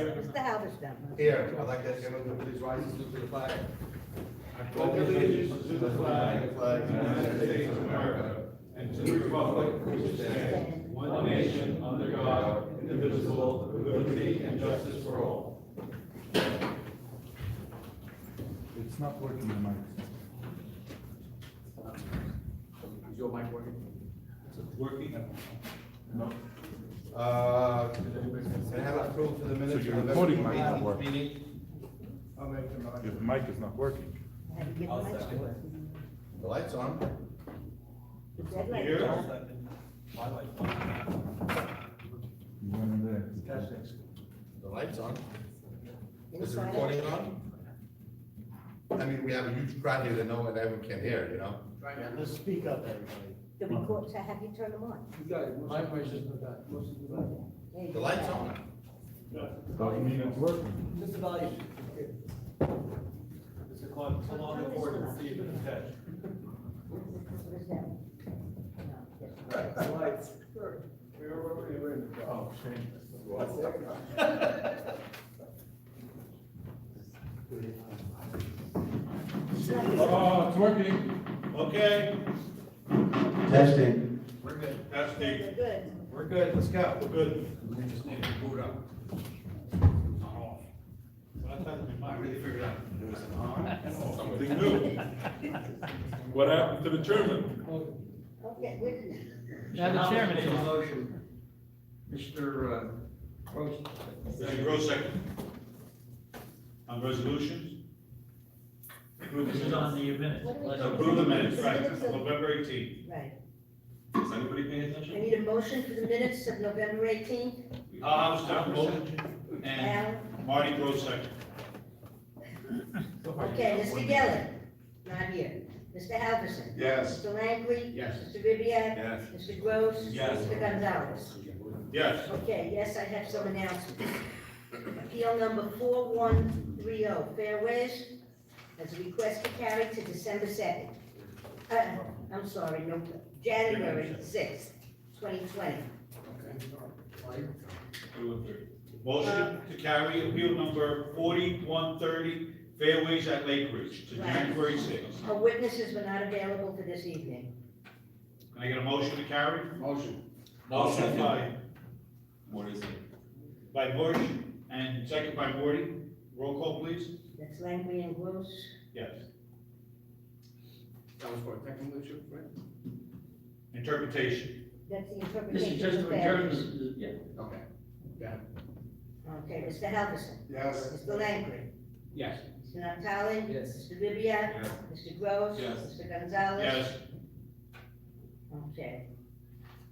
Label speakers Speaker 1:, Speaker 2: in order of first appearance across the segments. Speaker 1: Mr. Halberstam?
Speaker 2: Here, I'd like to ask everyone to please rise and salute to the flag.
Speaker 3: I pledge allegiance to the flag of the United States of America and to the republic which stands one nation under God, indivisible, with liberty and justice for all.
Speaker 4: It's not working, my mic.
Speaker 2: Is your mic working?
Speaker 3: Working.
Speaker 2: Uh, can I have approval for the minutes?
Speaker 4: So
Speaker 2: of
Speaker 4: your
Speaker 2: November
Speaker 4: recording mic not
Speaker 2: 18th
Speaker 4: working.
Speaker 2: meeting? I'll make the motion.
Speaker 4: Your mic is not working.
Speaker 1: Had to get
Speaker 2: I'll
Speaker 1: much
Speaker 2: second.
Speaker 1: work.
Speaker 2: The light's on.
Speaker 1: Is that like-
Speaker 3: Here.
Speaker 4: You went in there.
Speaker 2: The light's on. Is the
Speaker 1: Inside?
Speaker 2: recording on? I mean, we have a huge crowd here that no one ever can hear, you know?
Speaker 5: Yeah, let's speak up, everybody.
Speaker 1: The record, so have you turned them on?
Speaker 5: You got it, my question's not that,
Speaker 1: There you
Speaker 2: The
Speaker 1: go.
Speaker 2: light's on.
Speaker 4: Doesn't mean it's working.
Speaker 5: Mr. Valle.
Speaker 3: Mr. Klein, come on board and see the test.
Speaker 1: What is that? No.
Speaker 5: Lights.
Speaker 3: We are already in the. Oh,
Speaker 4: Oh, it's working.
Speaker 3: Okay,
Speaker 2: Testing.
Speaker 3: we're good. Testing.
Speaker 1: They're Good.
Speaker 2: We're good, let's go.
Speaker 3: We're good.
Speaker 2: We just need to boot up. I really figured out. There was an on and off.
Speaker 3: Something new. What happened to the chairman?
Speaker 1: Okay, we didn't.
Speaker 6: Now, the chairman
Speaker 5: Made a
Speaker 6: is-
Speaker 5: motion. Mr. uh, Gross.
Speaker 3: Mr. Gross, second. On resolutions? Approve the
Speaker 6: This is on
Speaker 3: minutes.
Speaker 6: the minutes.
Speaker 1: What do we-
Speaker 6: Let's-
Speaker 3: Approve the minutes, right, November eighteenth.
Speaker 1: Right.
Speaker 3: Is anybody paying
Speaker 1: I
Speaker 3: attention?
Speaker 1: need a motion for the minutes of November eighteenth.
Speaker 3: Uh, I was Tom Moulton and Marty Gross, second.
Speaker 1: Okay, Mr. Gillen, not here. Mr. Halverson.
Speaker 3: Yes.
Speaker 1: Mr. Langley.
Speaker 3: Yes.
Speaker 1: Mr. Ribbiad.
Speaker 2: Yes.
Speaker 1: Mr. Gross.
Speaker 3: Yes.
Speaker 1: Mr. Gonzalez.
Speaker 3: Yes.
Speaker 1: Okay, yes, I have some announcements. Appeal number four one three oh, Fairways, as a request to carry to December second. Uh, I'm sorry, no, January sixth, twenty twenty.
Speaker 3: Motion to carry appeal number forty-one thirty, Fairways at Lake Ridge, to January sixth.
Speaker 1: Our witnesses were not available for this evening.
Speaker 3: Can I get a motion to carry?
Speaker 5: Motion.
Speaker 3: Motion by. Morty. By Bush, and second by Morty. Roll call, please.
Speaker 1: That's Langley and Gross.
Speaker 3: Yes.
Speaker 5: That was for a technical issue, right?
Speaker 3: Interpretation.
Speaker 1: That's the
Speaker 6: This is
Speaker 1: interpretation
Speaker 6: just
Speaker 1: of
Speaker 6: to adjourn
Speaker 1: Fairways.
Speaker 6: the, yeah,
Speaker 5: Okay.
Speaker 1: Okay, Mr. Halverson.
Speaker 5: Yes.
Speaker 1: Mr. Langley.
Speaker 5: Yes.
Speaker 1: Mr. Natale.
Speaker 5: Yes.
Speaker 1: Mr. Ribbiat.
Speaker 3: Yes.
Speaker 1: Mr. Gross.
Speaker 3: Yes.
Speaker 1: Mr. Gonzalez.
Speaker 3: Yes.
Speaker 1: Okay.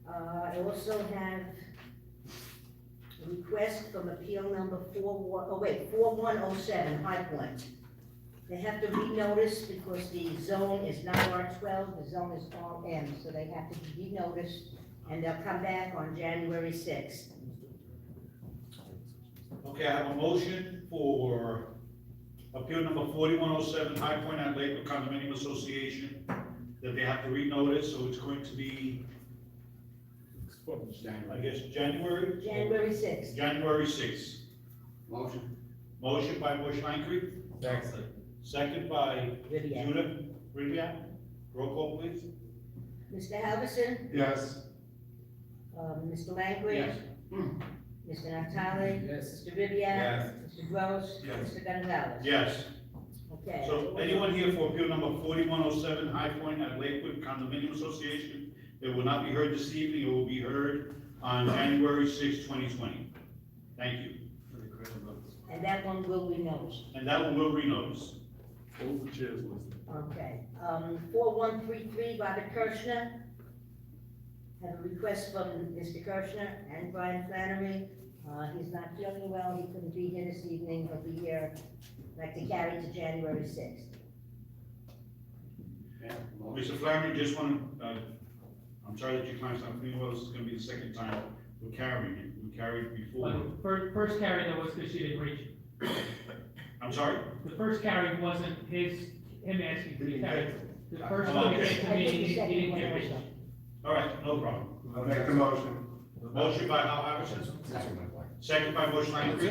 Speaker 1: Uh, I also have a request from appeal number four one, oh wait, four one oh seven, High Point. They have to renotice because the zone is not R twelve, the zone is R M, so they have to be renoticed, and they'll come back on January sixth.
Speaker 3: Okay, I have a motion for appeal number forty-one oh seven, High Point at Lakewood Condominium Association, that they have to renotice, so it's going to be, I guess, January?
Speaker 1: January sixth.
Speaker 3: January sixth.
Speaker 5: Motion.
Speaker 3: Motion by Bush Langley, second by
Speaker 1: Vivian.
Speaker 3: Judith Rivia. Roll call, please.
Speaker 1: Mr. Halverson,
Speaker 3: Yes.
Speaker 1: uh, Mr. Langley.
Speaker 3: Yes.
Speaker 1: Mr. Hmm. Natale.
Speaker 5: Yes.
Speaker 1: Mr. Vivian.
Speaker 3: Yes.
Speaker 1: Mr. Gross.
Speaker 3: Yes.
Speaker 1: Mr. Gonzalez.
Speaker 3: Yes.
Speaker 1: Okay.
Speaker 3: So anyone here for appeal number forty-one oh seven, High Point at Lakewood Condominium Association, it will not be heard this evening, it will be heard on January sixth, twenty twenty. Thank you.
Speaker 1: And that one will be noticed.
Speaker 3: And that one will renotice.
Speaker 1: Okay, um, four one three three, Robert Kirschner. Have a request from Mr. Kirschner and Brian Flannery. Uh, he's not feeling well, he couldn't be here this evening, he'll be here, like to carry to January sixth.
Speaker 3: Mr. Flaherty, just want to, uh, I'm sorry that your client's not feeling well, this is gonna be the second time we're carrying it, we carried it before.
Speaker 6: but first, first carry though was because she didn't reach. it.
Speaker 3: I'm sorry?
Speaker 6: The first carry wasn't his, him asking to be carried. The first one
Speaker 3: Okay.
Speaker 6: came to me, he didn't- he didn't get reached.
Speaker 3: All right, no problem.
Speaker 2: I'll make the motion.
Speaker 3: Motion by Hal Iverson, second by Bush Langley.